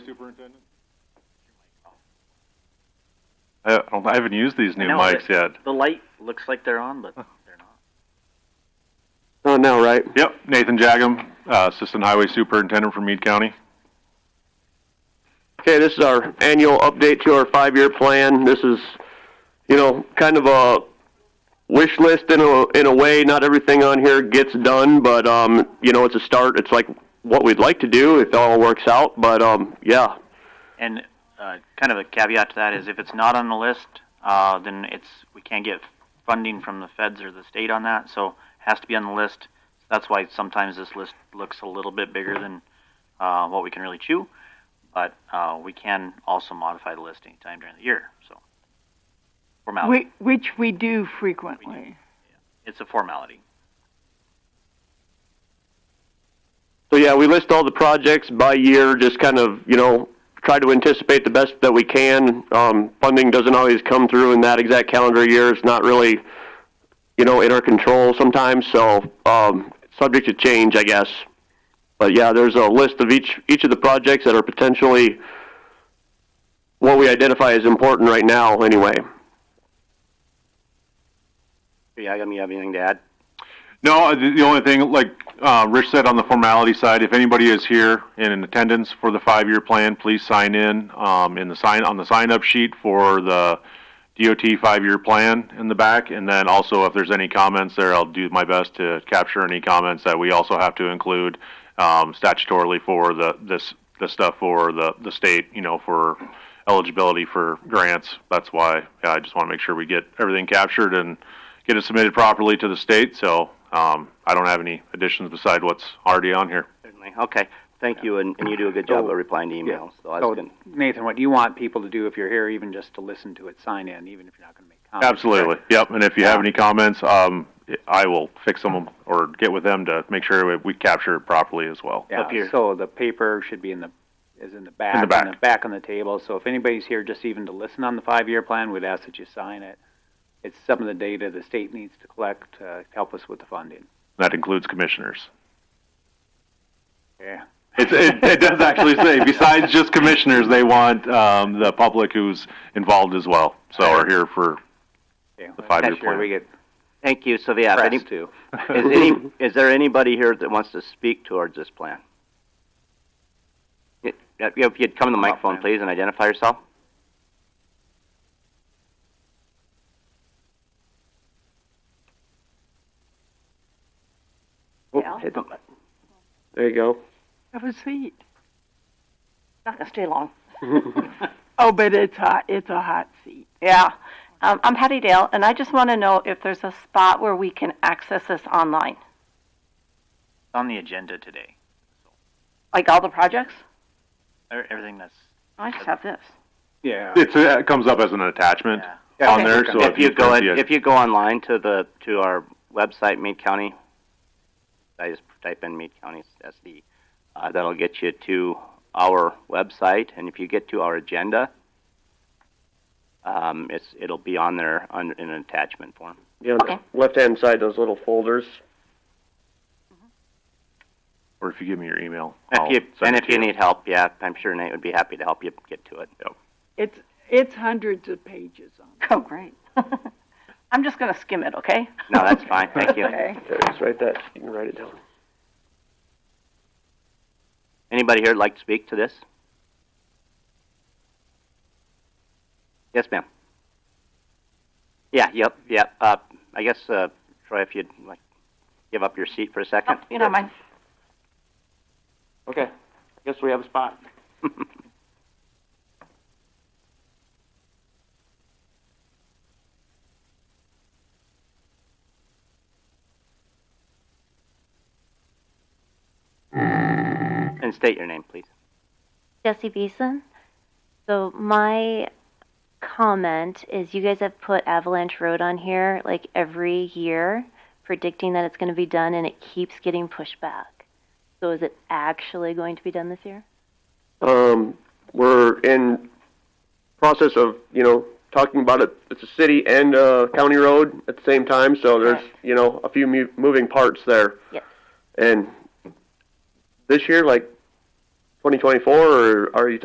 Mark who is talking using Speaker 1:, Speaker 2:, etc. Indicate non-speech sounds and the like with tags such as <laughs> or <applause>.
Speaker 1: Superintendent?
Speaker 2: I don't. I haven't used these new
Speaker 3: I know,
Speaker 2: mics
Speaker 3: but
Speaker 2: yet.
Speaker 3: The light looks like they're on, but they're not.
Speaker 4: Oh, now, right?
Speaker 2: Yep, Nathan Jagum, uh, Assistant Highway Superintendent for Meade County.
Speaker 4: Okay, this is our annual update to our five-year plan. This is, you know, kind of a wish list in a in a way. Not everything on here gets done, but um, you know, it's a start. It's like what we'd like to do if all works out. But um, yeah,
Speaker 3: And uh, kind of a caveat to that is if it's not on the list, uh, then it's we can't get funding from the feds or the state on that, so it has to be on the list. That's why sometimes this list looks a little bit bigger than uh, what we can really chew, but uh, we can also modify the list anytime during the year. So formality,
Speaker 5: Whi- Which we do frequently.
Speaker 3: it's a formality.
Speaker 4: So yeah, we list all the projects by year, just kind of, you know, try to anticipate the best that we can. Um, funding doesn't always come through in that exact calendar year. It's not really, you know, in our control sometimes, so um, subject to change, I guess. But yeah, there's a list of each each of the projects that are potentially what we identify as important right now anyway.
Speaker 6: Yeah, I don't have anything to add.
Speaker 2: No, uh, the the only thing, like uh, Rich said on the formality side, if anybody is here and in attendance for the five-year plan, please sign in um, in the sign on the sign-up sheet for the DOT five-year plan in the back. And then also, if there's any comments there, I'll do my best to capture any comments that we also have to include um, statutorily for the this the stuff for the the state. You know, for eligibility for grants. That's why yeah, I just want to make sure we get everything captured and get it submitted properly to the state. So um, I don't have any additions beside what's already on here.
Speaker 6: Certainly. Okay. Thank you, and, and you do a good job
Speaker 7: So-
Speaker 6: of replying to emails. So that's
Speaker 7: so-
Speaker 6: good.
Speaker 7: Oh, Nathan, what you want people to do if you're here, even just to listen to it, sign in, even if you're not going to make comments.
Speaker 2: Absolutely. Yep. And if you have any comments, um, I will fix them or get with them to make sure we, we capture it properly as well.
Speaker 7: Yeah,
Speaker 3: Up here.
Speaker 7: so the paper should be in the, is in the back.
Speaker 2: In the back.
Speaker 7: On the back on the table, so if anybody's here just even to listen on the five-year plan, we'd ask that you sign it. It's some of the data the state needs to collect to help us with the funding.
Speaker 2: That includes commissioners.
Speaker 7: Yeah.
Speaker 2: It's, it, it does actually say, besides just commissioners, they want um, the public who's involved as well. So are here for The five-year plan.
Speaker 7: We get
Speaker 6: Thank you. So yeah, if any,
Speaker 7: pressed
Speaker 6: is,
Speaker 7: too.
Speaker 6: any, is there anybody here that wants to speak towards this plan? Y- yeah, If you'd come to the microphone, please, and identify yourself.
Speaker 5: Yeah.
Speaker 6: Hit the-
Speaker 4: There you go.
Speaker 5: Have a seat.
Speaker 8: Not gonna stay long.
Speaker 5: Oh, but it's hot. It's a hot seat.
Speaker 8: Yeah. Um, I'm Patty Dale, and I just want to know if there's a spot where we can access this online,
Speaker 3: It's on the agenda today.
Speaker 8: like all the projects.
Speaker 3: Er- Everything that's
Speaker 8: I just have this. <laughs>
Speaker 7: Yeah.
Speaker 2: It's, it comes up as an attachment
Speaker 3: yeah.
Speaker 2: on there. So
Speaker 6: If you go,
Speaker 2: fancy
Speaker 6: in-
Speaker 2: it-
Speaker 6: if you go online to the, to our website, Meade County, I just type in Meade County SD. Uh, that'll get you to our website, and if you get to our agenda, um, it's, it'll be on there on, in an attachment form.
Speaker 4: Yeah, on the
Speaker 8: Okay.
Speaker 4: left-hand side, those little folders.
Speaker 2: or if you give me your email. I'll
Speaker 6: If you,
Speaker 2: send
Speaker 6: and
Speaker 2: it
Speaker 6: if
Speaker 2: to
Speaker 6: you need help, yeah, I'm sure Nate would be happy to help you get to it.
Speaker 5: It's it's hundreds of pages on.
Speaker 8: Oh, great. <laughs> I'm just gonna skim it, okay?
Speaker 2: <laughs>
Speaker 6: No, that's fine, thank you.
Speaker 8: Okay.
Speaker 4: There, just write that. You can write it down.
Speaker 6: Anybody here like to speak to this? Yes, ma'am. Yeah, yep, yep. Uh, I guess, uh, Troy, if you'd like, give up your seat for a second.
Speaker 8: Oh, you don't mind.
Speaker 4: Okay, guess we have a spot.
Speaker 6: And state your name, please.
Speaker 9: Jesse Beeson. So my comment is you guys have put Avalanche Road on here like every year, predicting that it's going to be done, and it keeps getting pushed back. So is it actually going to be done this year?
Speaker 4: Um, we're in process of, you know, talking about it. It's a city and a county road at the same time, so there's,
Speaker 9: Right.
Speaker 4: you know, a few mu- moving parts there.
Speaker 9: Yes.
Speaker 4: And this year, like 2024, or are you